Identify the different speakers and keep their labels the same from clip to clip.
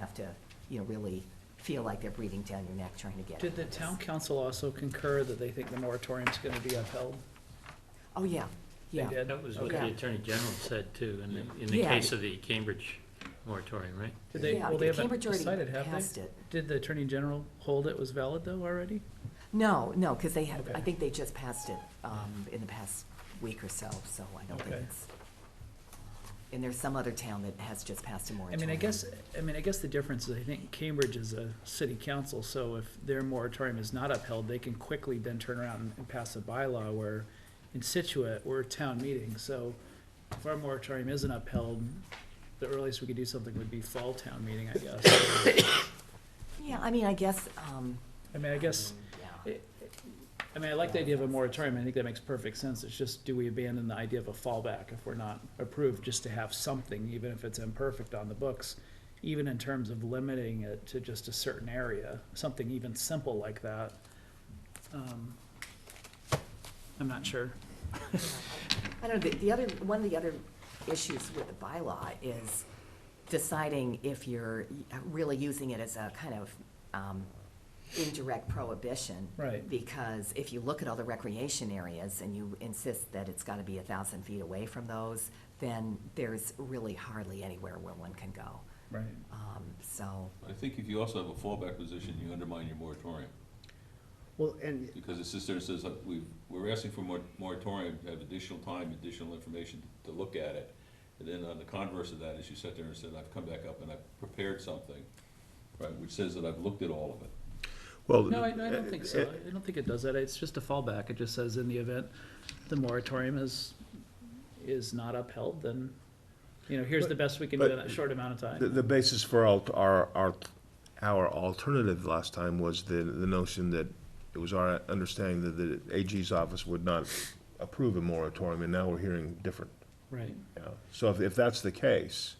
Speaker 1: have to, you know, really feel like they're breathing down your neck trying to get.
Speaker 2: Did the town council also concur that they think the moratorium's gonna be upheld?
Speaker 1: Oh, yeah,
Speaker 2: They
Speaker 1: yeah.
Speaker 2: did?
Speaker 3: That was what the
Speaker 1: Okay.
Speaker 3: Attorney General said too, in the, in the
Speaker 1: Yeah.
Speaker 3: case of the Cambridge moratorium, right?
Speaker 2: Did they,
Speaker 1: Yeah,
Speaker 2: well, they haven't
Speaker 1: Cambridge already
Speaker 2: decided, have
Speaker 1: passed
Speaker 2: they?
Speaker 1: it.
Speaker 2: Did the Attorney General hold it was valid though already?
Speaker 1: No, no, because they have, I
Speaker 2: Okay. Mm-hmm.
Speaker 1: think they just passed it um, in the past week or so, so I don't think
Speaker 2: Okay.
Speaker 1: it's. And there's some other town that has just passed a
Speaker 2: I
Speaker 1: moratorium.
Speaker 2: mean, I guess, I mean, I guess the difference is I think Cambridge is a city council, so if their moratorium is not upheld, they can quickly then turn around and- and pass a bylaw where in Situate, we're a town meeting, so if our moratorium isn't upheld, the earliest we could do something would be fall town meeting, I guess.
Speaker 1: Yeah, I mean, I guess, um,
Speaker 2: I mean, I guess,
Speaker 1: yeah,
Speaker 2: I mean, I like the idea of a moratorium, I think that makes perfect sense, it's just, do we abandon the idea of a fallback if we're not approved, just to have something, even if it's imperfect on the books? Even in terms of limiting it to just a certain area, something even simple like that. Um, I'm not sure.
Speaker 1: I don't know, the, the other, one of the other issues with the bylaw is deciding if you're really using it as a kind of um, indirect prohibition.
Speaker 2: Right.
Speaker 1: Because if you look at all the recreation areas and you insist that it's gotta be a thousand feet away from those, then there's really hardly anywhere where one can go.
Speaker 2: Right.
Speaker 1: Um, So,
Speaker 4: I think if you also have a fallback position, you undermine your moratorium,
Speaker 5: Well, and,
Speaker 4: because it sits there and says, uh, we, we're asking for mor- moratorium, to have additional time, additional information to look at it. And then on the converse of that is you sat there and said, I've come back up and I've prepared something, right, which says that I've looked at all of it.
Speaker 6: Well,
Speaker 2: No, I, no, I don't think so, I don't think it does that, it's just a fallback, it just says in the event the moratorium is, is not upheld, then, you know, here's the best we can do in that short amount of time.
Speaker 6: The, the basis for all, our, our, our alternative last time was the, the notion that it was our understanding that the AG's office would not approve a moratorium, and now we're hearing different.
Speaker 2: Right.
Speaker 6: you know. So if, if that's the case,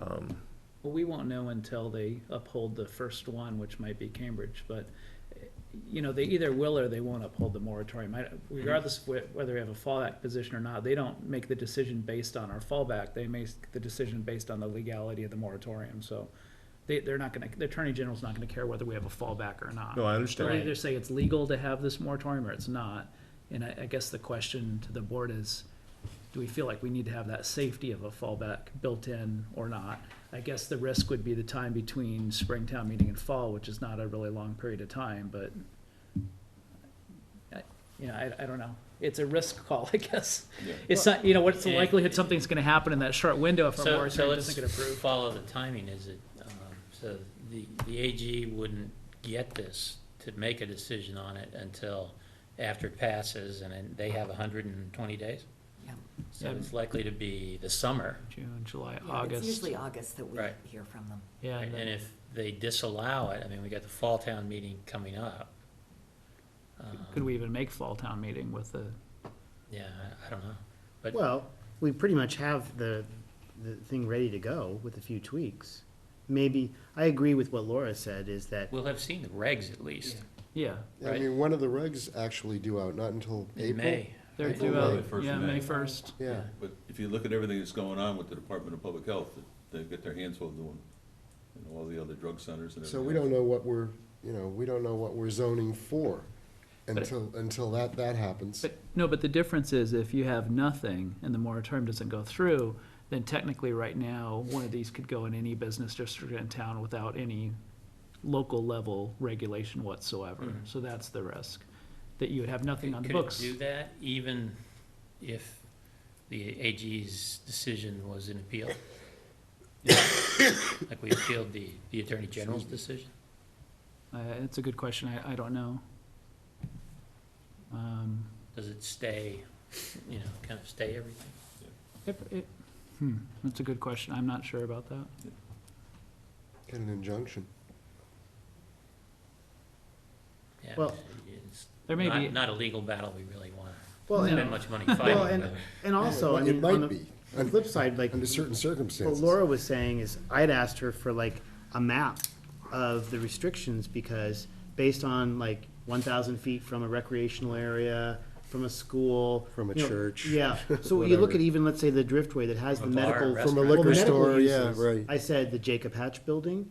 Speaker 2: Well, we won't know until they uphold the first one, which might be Cambridge, but, eh, you know, they either will or they won't uphold the moratorium. I- Regardless of whe- whether we have a fallback position or not, they don't make the decision based on our fallback. They make the decision based on the legality of the moratorium, so they, they're not gonna, the Attorney General's not gonna care whether we have a fallback or not.
Speaker 6: no, I
Speaker 2: They'll
Speaker 6: understand.
Speaker 2: either say it's legal to have this moratorium or it's not. And I, I guess the question to the board is, do we feel like we need to have that safety of a fallback built in or not? I guess the risk would be the time between spring town meeting and fall, which is not a really long period of time, but I- you know, I, I don't know. It's a risk call, I guess.
Speaker 4: Yeah.
Speaker 2: It's not, you know, what's the
Speaker 3: Yeah.
Speaker 2: likelihood something's gonna happen in that short window if a
Speaker 3: So, so
Speaker 2: moratorium
Speaker 3: let's
Speaker 2: doesn't get approved?
Speaker 3: follow the timing, is it, um, so the, the AG wouldn't get this to make a decision on it until after it passes and then they have hundred and twenty days?
Speaker 1: yeah.
Speaker 3: So it's likely to be the summer.
Speaker 2: June, July,
Speaker 1: Yeah,
Speaker 2: August.
Speaker 1: It's usually August that we
Speaker 3: Right.
Speaker 1: hear from them.
Speaker 2: Yeah,
Speaker 3: And
Speaker 2: and then-
Speaker 3: if they disallow it, I mean, we got the fall town meeting coming up. Um,
Speaker 2: could we even make fall town meeting with the
Speaker 3: Yeah, I, I don't know, but.
Speaker 5: well, we pretty much have the, the thing ready to go with a few tweaks. Maybe, I agree with what Laura said, is that,
Speaker 3: We'll have seen the regs at least
Speaker 2: Yeah,
Speaker 7: I
Speaker 3: Right.
Speaker 7: mean, when are the regs actually due out? Not until
Speaker 3: in
Speaker 7: April?
Speaker 3: May.
Speaker 2: they're
Speaker 7: April,
Speaker 2: due
Speaker 7: May.
Speaker 2: out,
Speaker 4: First
Speaker 2: yeah,
Speaker 4: of May.
Speaker 2: May first.
Speaker 7: Yeah.
Speaker 4: But if you look at everything that's going on with the Department of Public Health, they've got their hands full doing, and all the other drug centers and
Speaker 7: So
Speaker 4: everything.
Speaker 7: we don't know what we're, you know, we don't know what we're zoning for until, until that, that happens.
Speaker 2: But, no, but the difference is if you have nothing and the moratorium doesn't go through, then technically right now, one of these could go in any business district in town without any local level regulation whatsoever. So that's the risk, that you would have nothing on the
Speaker 3: Mm-hmm. Could it
Speaker 2: books.
Speaker 3: do that even if the AG's decision was an appeal? Like we appealed the, the Attorney General's decision?
Speaker 2: Uh, it's a good question, I, I don't know. Um,
Speaker 3: Does it stay, you know, kind of stay everything?
Speaker 2: it, it, hmm, that's a good question, I'm not sure about that.
Speaker 7: Get an injunction.
Speaker 3: Yeah,
Speaker 5: Well,
Speaker 3: it's
Speaker 2: There may
Speaker 3: not-
Speaker 2: be-
Speaker 3: Not a legal battle we really want
Speaker 5: well,
Speaker 3: to
Speaker 5: and,
Speaker 3: spend much money
Speaker 5: well,
Speaker 3: fighting,
Speaker 5: and,
Speaker 3: but
Speaker 5: and also, I
Speaker 7: Well, It
Speaker 5: mean, on
Speaker 7: might
Speaker 5: the
Speaker 7: be,
Speaker 5: on the flip side, like,
Speaker 7: under certain
Speaker 5: what
Speaker 7: circumstances.
Speaker 5: Laura was saying is, I'd asked her for like a map of the restrictions, because based on like one thousand feet from a recreational area, from a school.
Speaker 7: From a
Speaker 5: you know,
Speaker 7: church,
Speaker 5: Yeah, so you look
Speaker 7: whatever.
Speaker 5: at even, let's say, the Driftway that has the
Speaker 3: A bar,
Speaker 5: medical.
Speaker 7: From a
Speaker 5: well,
Speaker 7: liquor
Speaker 5: medical
Speaker 7: store, yeah,
Speaker 5: uses.
Speaker 7: right.
Speaker 5: I said the Jacob Hatch Building,